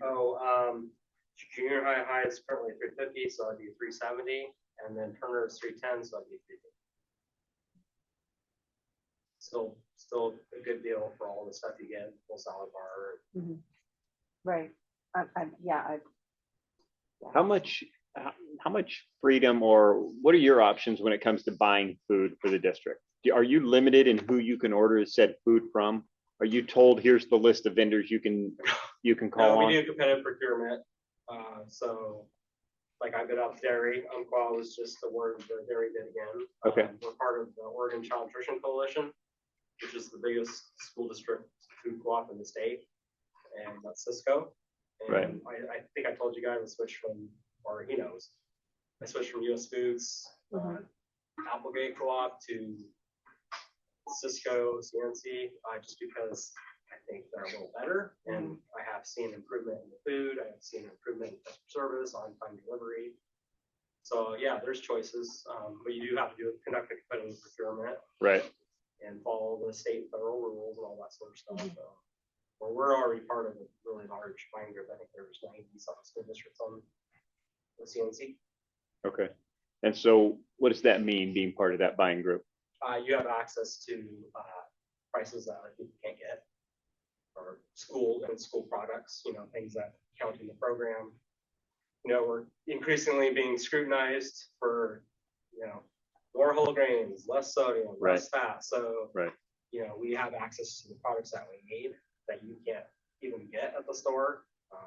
So, um, junior high, high is currently three fifty, so I'd be three seventy, and then Turner is three ten, so I'd be three fifty. Still, still a good deal for all the stuff you get, full salad bar, Right, I, I, yeah, I, How much, how, how much freedom or what are your options when it comes to buying food for the district? Do- Are you limited in who you can order said food from? Are you told, here's the list of vendors you can, you can No, call we do on? competitive procurement, uh, so, like I bid out dairy, Umqua was just the word for dairy bid again. Okay. Um, We're part of the Oregon Child Nutrition Coalition, which is the biggest school district food co-op in the state, and that's Cisco. Right. And I, I think I told you guys I switched from, or he knows, I switched from US Foods, uh, Mhm. Applegate Co-op to Cisco, CNC, uh, just because I think they're a little better, and I have seen improvement in the food, I have seen improvement in customer service, on-time delivery. So, yeah, there's choices, um, but you do have to do, conduct a competitive procurement Right, and follow the state and federal rules and all that sort of stuff, so. Well, we're already part of a really large buying group, I think there's ninety something school districts on the CNC. okay. And so what does that mean, being part of that buying group? Uh, you have access to, uh, prices that other people can't get. Or school and school products, you know, things that count in the program. You know, we're increasingly being scrutinized for, you know, more whole grains, less sodium, less fat, so. Right. You know, we have access to the products that we need that you can't even get at the store. uh,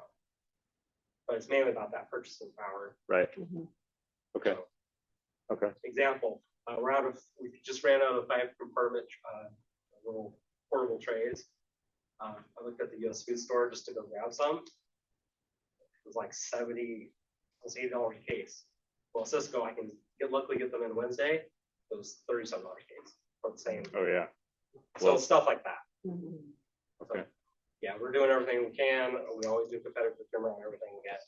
But it's mainly about that purchasing power Right, mhm, okay, So- okay, example, uh, we're out of, we just ran out of five compartment, uh, little portable trays. Uh, I looked at the US food store just to go grab some. It was like seventy, it was eighty dollars a case. Well, Cisco, I can get, luckily get them in Wednesday, it was thirty-seven dollars a case, for the same, oh, yeah, so stuff like that. mhm. okay. Yeah, we're doing everything we can, we always do competitive procurement on everything we get.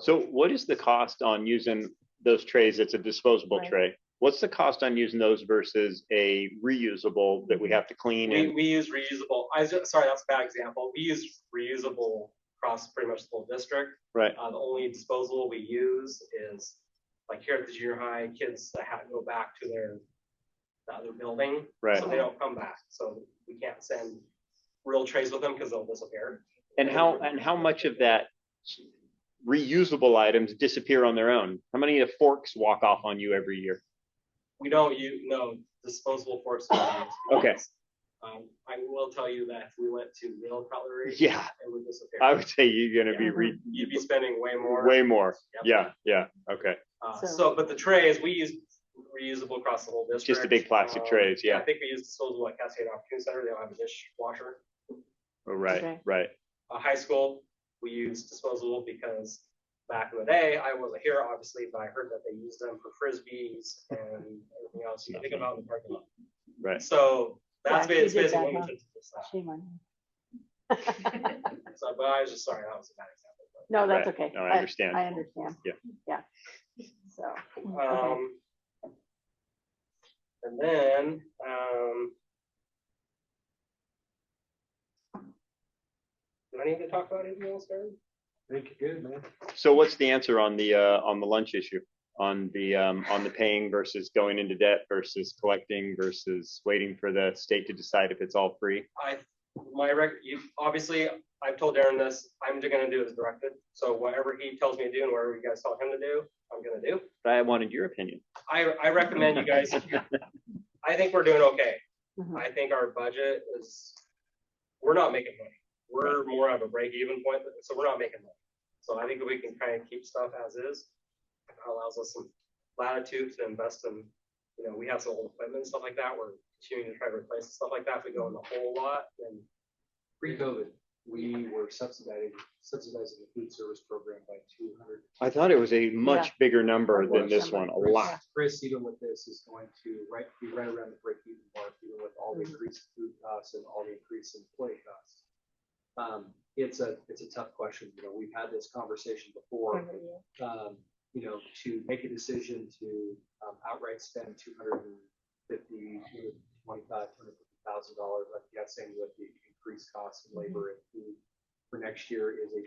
So what is the cost on using those trays? It's a disposable Right. tray. What's the cost on using those versus a reusable that we have to clean Mm-hmm. We, and, we use reusable, I was, sorry, that's a bad example, we use reusable across pretty much the whole district. right, Uh, the only disposal we use is, like here at the junior high, kids that have to go back to their, the other building, right? so they don't come back, so we can't send real trays with them because they'll disappear. And how, and how much of that reusable items disappear on their own? How many of the forks walk off on you every year? We don't use, no, disposable forks. we don't use. Okay. Um, I will tell you that if we went to real cutlery, it Yeah, would disappear. I would say you're gonna be re, You'd be spending way more. way more. Yep. Yeah, yeah, okay. Uh, So- so, but the trays, we use reusable across the whole district. Just the big plastic Um, trays, yeah. I think we use disposable at Cascade Opportunity Center, they don't have a dishwasher. Oh, Right, Okay. right, Uh, high school, we use disposable because back in the day, I wasn't here obviously, but I heard that they use them for frisbees and everything else. You think about in the parking lot. right. So that's Yeah, you ba- it's did basically that, huh? what we did to this stuff. Shame on you. So, but I was just sorry, that was a bad example. but- No, that's Right. okay. No, I understand. I understand. Yeah. Yeah. So. okay. Um, and then, um. Do I need to talk about anything else, Aaron? Think you're good, man. So what's the answer on the, uh, on the lunch issue? On the, um, on the paying versus going into debt versus collecting versus waiting for the state to decide if it's all free? I, my rec, you, obviously, I've told Aaron this, I'm just gonna do as directed, so whatever he tells me to do and whatever you guys tell him to do, I'm gonna do. But I wanted your opinion. I, I recommend you guys, I think we're doing okay. Mhm. I think our budget is, we're not making money. We're more of a break even point, so we're not making money. So I think we can kind of keep stuff as is. It Allows us some latitude to invest in, you know, we have some old equipment and stuff like that. We're continuing to try to replace and stuff like that. If we go in the whole lot, then Pre-COVID, we were subsidizing, subsidizing the food service program by two hundred. I thought it was a much bigger number than this one, a lot. Chris, even with this, is going to right, be right around the break even mark, even with all the Mhm. increased food costs and all the increase in employee costs. Um, it's a, it's a tough question, you know, we've had this conversation before. um, you know, to make a decision to um, outright spend two hundred and fifty, two hundred and twenty-five, two hundred and fifty thousand dollars, I'm guessing with the increased costs of labor and food for next year is a